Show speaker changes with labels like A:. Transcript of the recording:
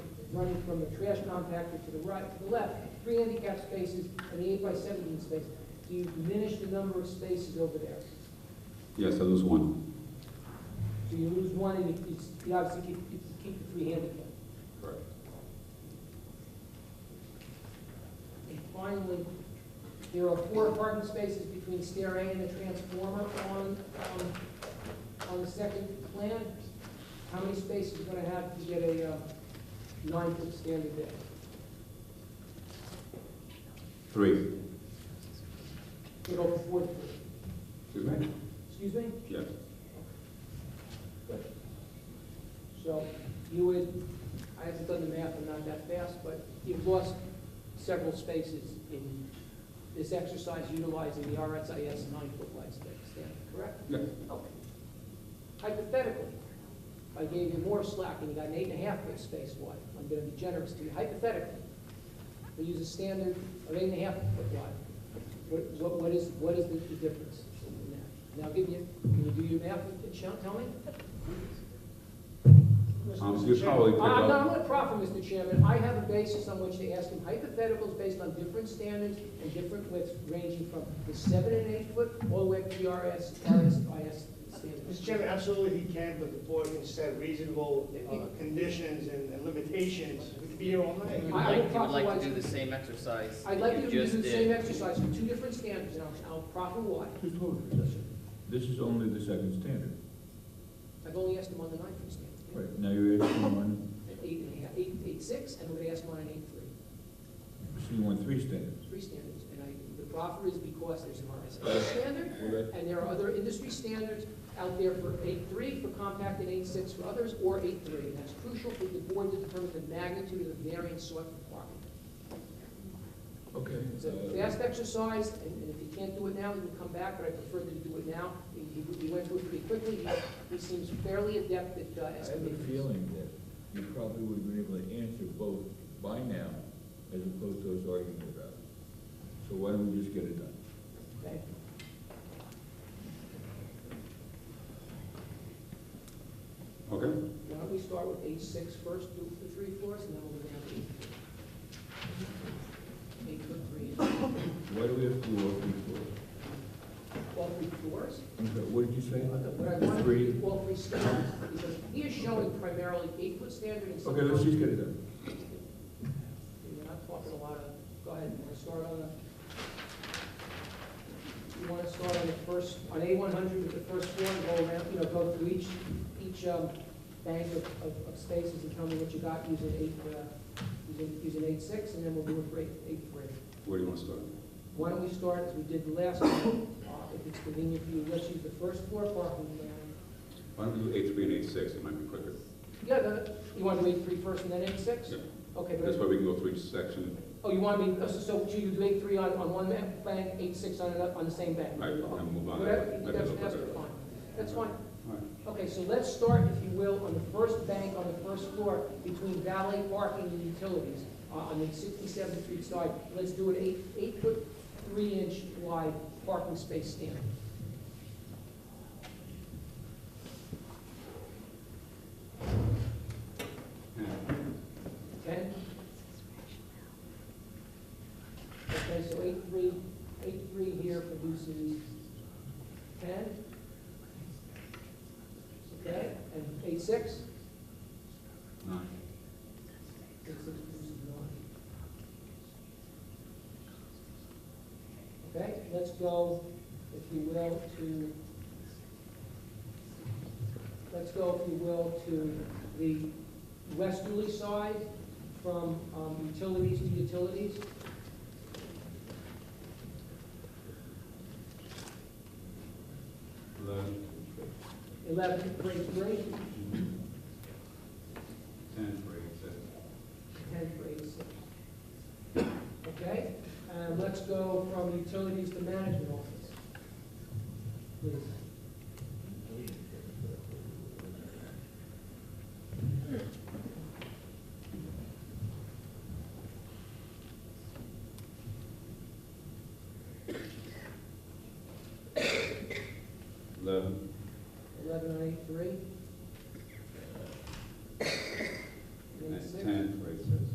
A: running from the trash compactor to the right, to the left, three handicap spaces and the eight by seventeen space. Do you diminish the number of spaces over there?
B: Yes, I lose one.
A: So you lose one and you, you- you obviously keep, you keep the three handicap.
B: Correct.
A: And finally, there are four parking spaces between stair A and the transformer on, um, on the second plan. How many spaces are gonna have to get a, uh, nine-foot standard there?
B: Three.
A: Get over four feet.
B: Excuse me?
A: Excuse me?
B: Yes.
A: Good. So you would, I haven't done the math, I'm not that fast, but you've lost several spaces in this exercise utilizing the RSIS nine-foot wide space standard, correct?
B: Yes.
A: Okay. Hypothetically, if I gave you more slack and you got an eight and a half foot space wide, I'm gonna be generous to you, hypothetically, we use a standard of eight and a half foot wide. What, what- what is, what is the the difference in that? Now, give you, can you do your math, and show- tell me?
B: Um, you probably pick
A: I'm not
B: up,
A: going to proffer, Mr. Chairman, I have a basis on which to ask him hypotheticals based on different standards and different widths ranging from the seven and eight foot all the way up to the RS, RSIS standards.
C: Mr. Chairman, absolutely he can, but the board can set reasonable uh, conditions and and limitations. We could be here all
A: I-
C: night.
A: I
D: Like,
A: will
D: you would like
A: compromise.
D: to do the same exercise
A: I'd like you
D: you
A: to do
D: just
A: the same
D: did.
A: exercise for two different standards, and I'll, I'll proffer why.
E: Just hold it, listen, this is only the second standard.
A: I've only asked him on the nine foot standard.
E: Right, now you're asking on
A: An Eight and a half, eight, eight six, and I'm going to ask him on an eight three,
E: C one three standards.
A: three standards. And I, the proffer is because there's an RSIS standard,
B: Okay.
A: And there are other industry standards out there for eight three for compact and eight six for others, or eight three. And that's crucial for the board to determine the magnitude of the variance sought for parking.
E: Okay.
A: It's a
E: uh,
A: fast exercise, and and if you can't do it now, you can come back, but I prefer that you do it now. He- He he went through it pretty quickly. He- He seems fairly adept at uh,
E: I have
A: estimating.
E: a feeling that you probably would have been able to answer both by now, as opposed to us arguing about it. So why don't we just get it done?
A: Okay.
B: okay?
A: Why don't we start with eight six first, do the three floors, and then we'll go down to eight three. Eight foot three,
E: Why do we have to do all three floors?
A: all three floors.
E: I'm sorry, what did you
A: What I want
E: say?
A: to
E: Three?
A: do, all three standards, because he is showing primarily eight-foot standard and some.
E: Okay, let's just get it done.
A: We're not talking a lot of, go ahead, you want to start on the, you want to start on the first, on A one hundred with the first floor, and go around, you know, go through each, each, um, bank of, of, of spaces and tell me what you got using eight, uh, using, using eight-six, and then we'll do it for eight, eight-three.
B: Where do you want to start?
A: Why don't we start as we did the last, one, uh, if it's convenient for you, let's use the first floor parking plan,
B: Why don't we do eight three and eight six, it might be quicker.
A: Yeah, no, you want to do eight three first and then eight six?
B: Yeah.
A: Okay,
B: That's why
A: but,
B: we can go through each section.
A: oh, you want me, oh, so- so you do eight three on, on one ma- bank, eight six on another, on the same bank?
B: Right, and move on.
A: Whatever,
B: That'd be a
A: that's,
B: little
A: that's
B: quicker.
A: fine, that's fine.
B: All right.
A: Okay, so let's start, if you will, on the first bank, on the first floor, between valet parking and utilities, uh, on the sixty-seventh street side. Let's do an eight, eight foot, three inch wide parking space standard.
B: Yeah.
A: Okay? Okay, so eight three, eight three here produces ten. Okay, and eight six,
B: Nine.
A: eight six produces nine. Okay, let's go, if you will, to, let's go, if you will, to the westerly side from um, utilities to utilities.
B: Eleven.
A: 11, grade 3,
B: Ten for eight six.
A: 10, grade 6. Okay, and let's go from utilities to management office. Please.
B: Eleven.
A: 11 on 8, 3.
B: And
A: 8, 6.
B: Ten.
E: ten, for eight, seven.